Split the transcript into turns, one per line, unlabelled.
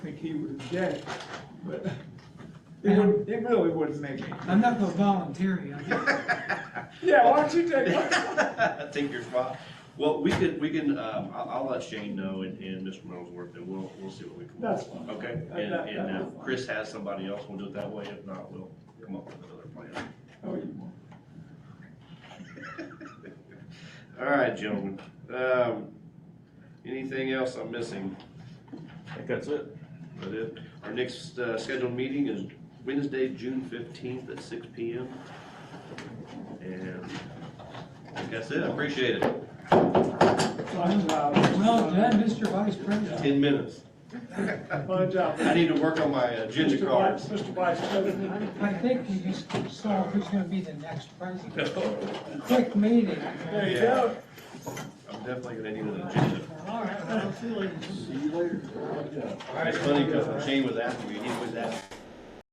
think he was dead, but it would, it really wouldn't make any.
I'm not gonna volunteer you. I guess.
Yeah, why don't you take, why
Take your spot. Well, we can, we can, um, I'll, I'll let Shane know and, and Mr. Middlesworth, and we'll, we'll see what we can.
That's fine.
Okay,
That-
and,
that-
and
that'll be
if
fine.
Chris has somebody else, we'll do it that way. If not, we'll come up with another plan.
Oh, you won't.
All right, gentlemen, um, anything else I'm missing?
I think that's it.
That it? Our next, uh, scheduled meeting is Wednesday, June fifteenth at six P M. And I think that's it. I Appreciate it.
Fine job.
Well done, Mr. Vice President.
Ten minutes.
Fine job.
I need to work on my agenda
Mr.
cards.
Vice- Mr. Vice President,
I think we just saw who's gonna be the next president. Quick meeting.
there you
Yeah.
go.
I'm definitely gonna need an agenda.
All right, well, see you later.
It's funny because Shane was after me, he was after